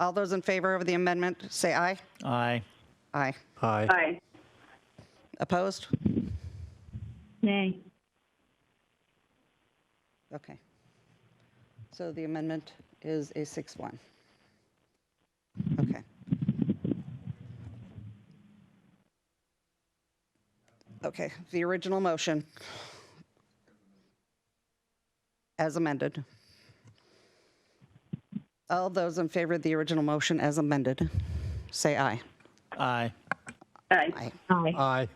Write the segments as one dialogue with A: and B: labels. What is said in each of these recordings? A: All those in favor of the amendment, say aye.
B: Aye.
A: Aye.
C: Aye.
D: Aye.
A: Opposed?
D: Nay.
A: Okay. So the amendment is a 6-1. Okay. Okay, the original motion as amended. All those in favor of the original motion as amended, say aye.
B: Aye.
D: Aye.
A: Aye.
D: Aye.
C: Aye.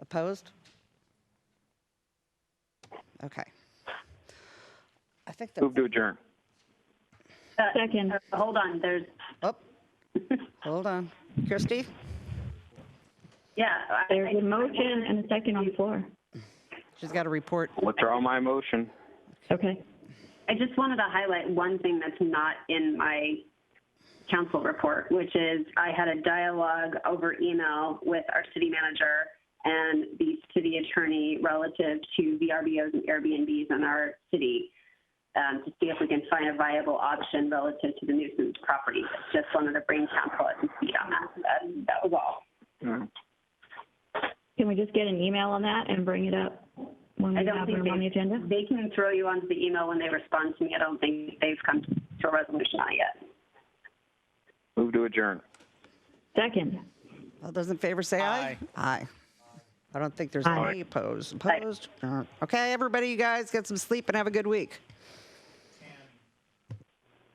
A: Opposed? Okay. I think that.
E: Move to adjourn.
D: Second. Uh, Hold on, there's,
A: Oh, hold on. Christie?
D: yeah. I-
F: There's a motion and a second on the floor.
A: She's got a report.
E: Withdraw my motion.
F: Okay.
D: I just wanted to highlight one thing that's not in my council report, which is I had a dialogue over email with our city manager and the city attorney relative to VRBOs and Airbnbs in our city um, to see if we can find a viable option relative to the nuisance property. Just wanted to bring council up to speed on that. That, that was all.
F: Can we just get an email on that and bring it up when
D: I
F: we
D: don't
F: have
D: think
F: room
D: they-
F: on the agenda?
D: They can throw you onto the email when they respond to me. I don't think they've come to a resolution on it yet.
E: Move to adjourn.
F: Second.
A: All those in favor say aye. Aye. I don't think there's
F: Aye.
A: any opposed. Opposed? Uh, Okay, everybody, you guys, get some sleep and have a good week.